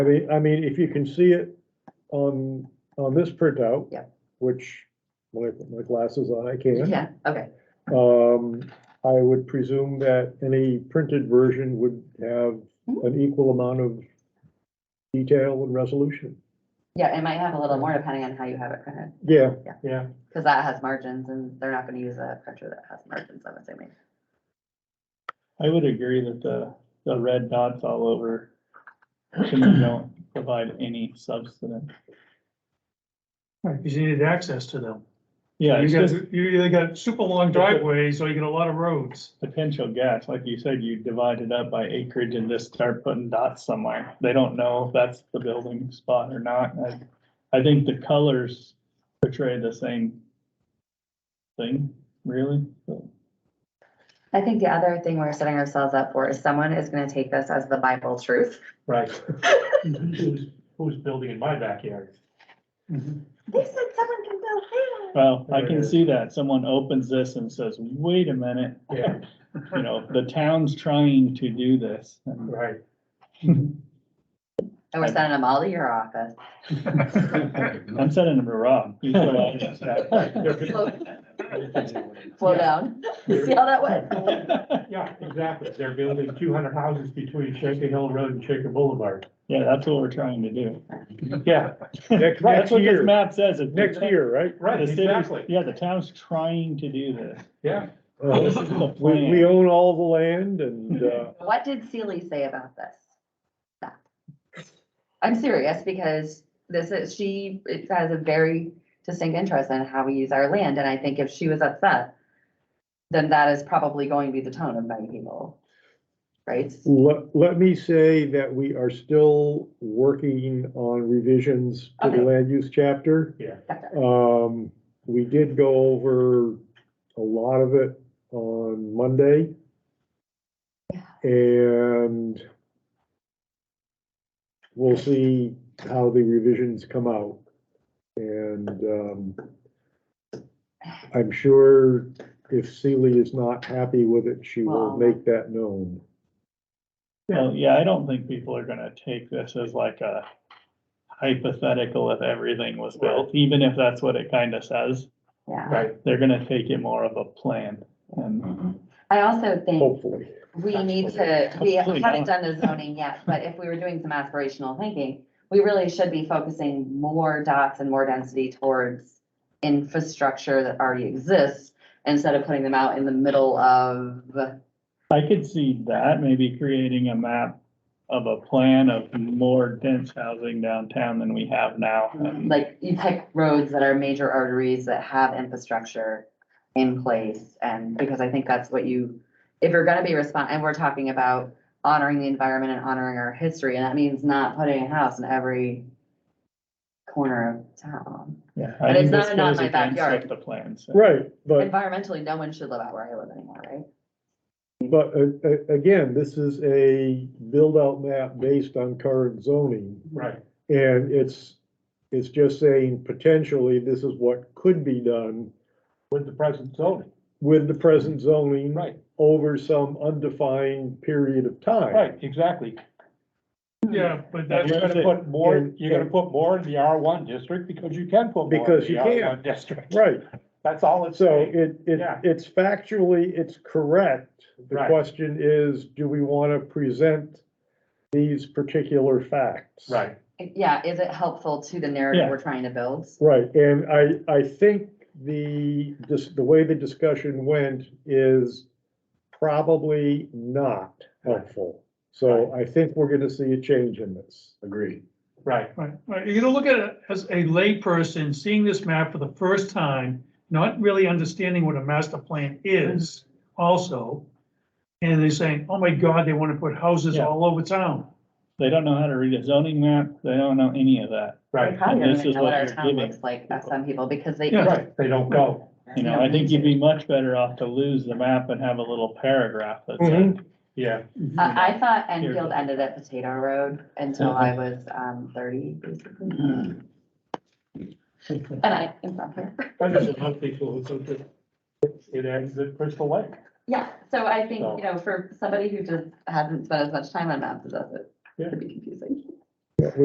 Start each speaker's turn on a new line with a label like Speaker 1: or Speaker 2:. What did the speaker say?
Speaker 1: I mean, I mean, if you can see it on, on this printout.
Speaker 2: Yeah.
Speaker 1: Which, when I put my glasses on, I
Speaker 2: You
Speaker 1: can't.
Speaker 2: can, okay,
Speaker 1: Um, I would presume that any printed version would have
Speaker 2: Hmm?
Speaker 1: an equal amount of detail and resolution.
Speaker 2: yeah, it might have a little more depending on how you have it printed,
Speaker 1: Yeah,
Speaker 2: Yeah.
Speaker 1: yeah.
Speaker 2: because that has margins and they're not gonna use a printer that has margins, I'm assuming.
Speaker 3: I would agree that uh, the, the red dots all over to me don't provide any substance.
Speaker 4: Right, because you needed access to them.
Speaker 3: Yeah,
Speaker 4: You
Speaker 3: it's
Speaker 4: got,
Speaker 3: just
Speaker 4: you either got super long driveways or you got a lot of roads.
Speaker 3: potential gas. Like you said, you divide it up by acreage and just start putting dots somewhere. They don't know if that's the building spot or not. I, I think the colors portray the same thing, really. So,
Speaker 2: I think the other thing we're setting ourselves up for is someone is gonna take this as the Bible truth.
Speaker 5: Right. Who's, who's building in my backyard?
Speaker 2: They said someone can build there.
Speaker 3: Well, I can see that. Someone opens this and says, wait a minute,
Speaker 5: Yeah,
Speaker 3: you know, the town's trying to do this. And
Speaker 5: right.
Speaker 2: And we're sending them all to your office.
Speaker 3: I'm sending him to Rob. He's the one.
Speaker 2: Slow down, see how that went.
Speaker 5: Yeah, exactly. They're building two hundred houses between Shaker Hill Road and Shaker Boulevard.
Speaker 3: Yeah, that's what we're trying to do.
Speaker 5: Yeah,
Speaker 1: Next,
Speaker 3: That's
Speaker 1: next
Speaker 3: what this
Speaker 1: year,
Speaker 3: map says. It's-
Speaker 1: next year, right?
Speaker 5: right,
Speaker 3: The city's-
Speaker 5: exactly.
Speaker 3: Yeah, the town's trying to do this.
Speaker 5: Yeah,
Speaker 3: This
Speaker 1: Uh,
Speaker 3: is the
Speaker 1: We, we
Speaker 3: plan.
Speaker 1: own all the land and, uh,
Speaker 2: What did Sealy say about this? Stop. I'm serious because this is, she it has a very distinct interest in how we use our land, and I think if she was upset, then that is probably going to be the tone of many people. Right?
Speaker 1: let, let me say that we are still working on revisions to the
Speaker 2: Okay.
Speaker 1: land use chapter.
Speaker 5: yeah.
Speaker 1: Um, we did go over a lot of it on Monday.
Speaker 2: Yeah.
Speaker 1: And we'll see how the revisions come out. And, um, I'm sure if Sealy is not happy with it, she will
Speaker 2: Well-
Speaker 1: make that known.
Speaker 3: Well, yeah, I don't think people are gonna take this as like a hypothetical if everything was built, even if that's what it kinda says.
Speaker 2: Yeah.
Speaker 5: Right,
Speaker 3: They're gonna take it more of a plan and
Speaker 2: I also think
Speaker 1: Hopefully,
Speaker 2: we need to, we
Speaker 3: Absolutely
Speaker 2: haven't
Speaker 3: not.
Speaker 2: done the zoning yet, but if we were doing some aspirational thinking, we really should be focusing more dots and more density towards infrastructure that already exists instead of putting them out in the middle of,
Speaker 3: I could see that, maybe creating a map of a plan of more dense housing downtown than we have now. and-
Speaker 2: like, you pick roads that are major arteries that have infrastructure in place. And because I think that's what you, if you're gonna be respon, and we're talking about honoring the environment and honoring our history, and that means not putting a house in every corner of town.
Speaker 3: Yeah,
Speaker 2: But
Speaker 3: I
Speaker 2: it's
Speaker 3: think this
Speaker 2: not- not
Speaker 3: goes
Speaker 2: my
Speaker 3: against
Speaker 2: backyard.
Speaker 3: what the plan says.
Speaker 1: right, but.
Speaker 2: Environmentally, no one should live out where I live anymore, right?
Speaker 1: But uh, uh, again, this is a build-out map based on current zoning,
Speaker 5: right.
Speaker 1: and it's, it's just saying potentially this is what could be done
Speaker 5: With the present zoning,
Speaker 1: with the present zoning
Speaker 5: right,
Speaker 1: over some undefined period of time.
Speaker 5: right, exactly.
Speaker 4: Yeah, but
Speaker 5: You're
Speaker 4: that's,
Speaker 5: gonna put more, you're gonna put more in the R one district because you can put more
Speaker 1: Because
Speaker 5: in
Speaker 1: you
Speaker 5: the
Speaker 1: can.
Speaker 5: R one district.
Speaker 1: Right,
Speaker 5: That's all it's
Speaker 1: so
Speaker 5: saying.
Speaker 1: it, it,
Speaker 5: Yeah.
Speaker 1: it's factually, it's correct. The
Speaker 5: Right.
Speaker 1: question is, do we want to present these particular facts?
Speaker 5: Right,
Speaker 2: Yeah, is it helpful to the narrative
Speaker 3: Yeah.
Speaker 2: we're trying to build?
Speaker 1: Right, and I, I think the, just the way the discussion went is probably not helpful. So I think we're gonna see a change in this. Agreed.
Speaker 5: right,
Speaker 4: right, right, you're gonna look at it as a layperson, seeing this map for the first time, not really understanding what a master plan is
Speaker 3: Mm-hmm.
Speaker 4: also. And they're saying, oh my God, they wanna put houses
Speaker 3: Yeah.
Speaker 4: all over town.
Speaker 3: They don't know how to read a zoning map. They don't know any of that.
Speaker 2: We're
Speaker 5: right,
Speaker 2: probably
Speaker 3: And
Speaker 2: not
Speaker 3: this
Speaker 2: gonna
Speaker 3: is
Speaker 2: know what
Speaker 3: what
Speaker 2: our
Speaker 3: you're
Speaker 2: town
Speaker 3: giving
Speaker 2: looks like, by some people, because they.
Speaker 4: Yeah.
Speaker 5: right. They don't know.
Speaker 3: You know, I think you'd be much better off to lose the map and have a little paragraph that says.
Speaker 1: Mhm.
Speaker 5: Yeah,
Speaker 2: Mm-hmm. I, I thought Enfield ended at Potato Road until I was, um, thirty, basically. And I am from here.
Speaker 5: I just love people who think that it ends at Crystal Lake.
Speaker 2: Yeah, so I think,
Speaker 5: So-
Speaker 2: you know, for somebody who just hasn't spent as much time on maps as us, it
Speaker 5: Yeah.
Speaker 2: could be confusing.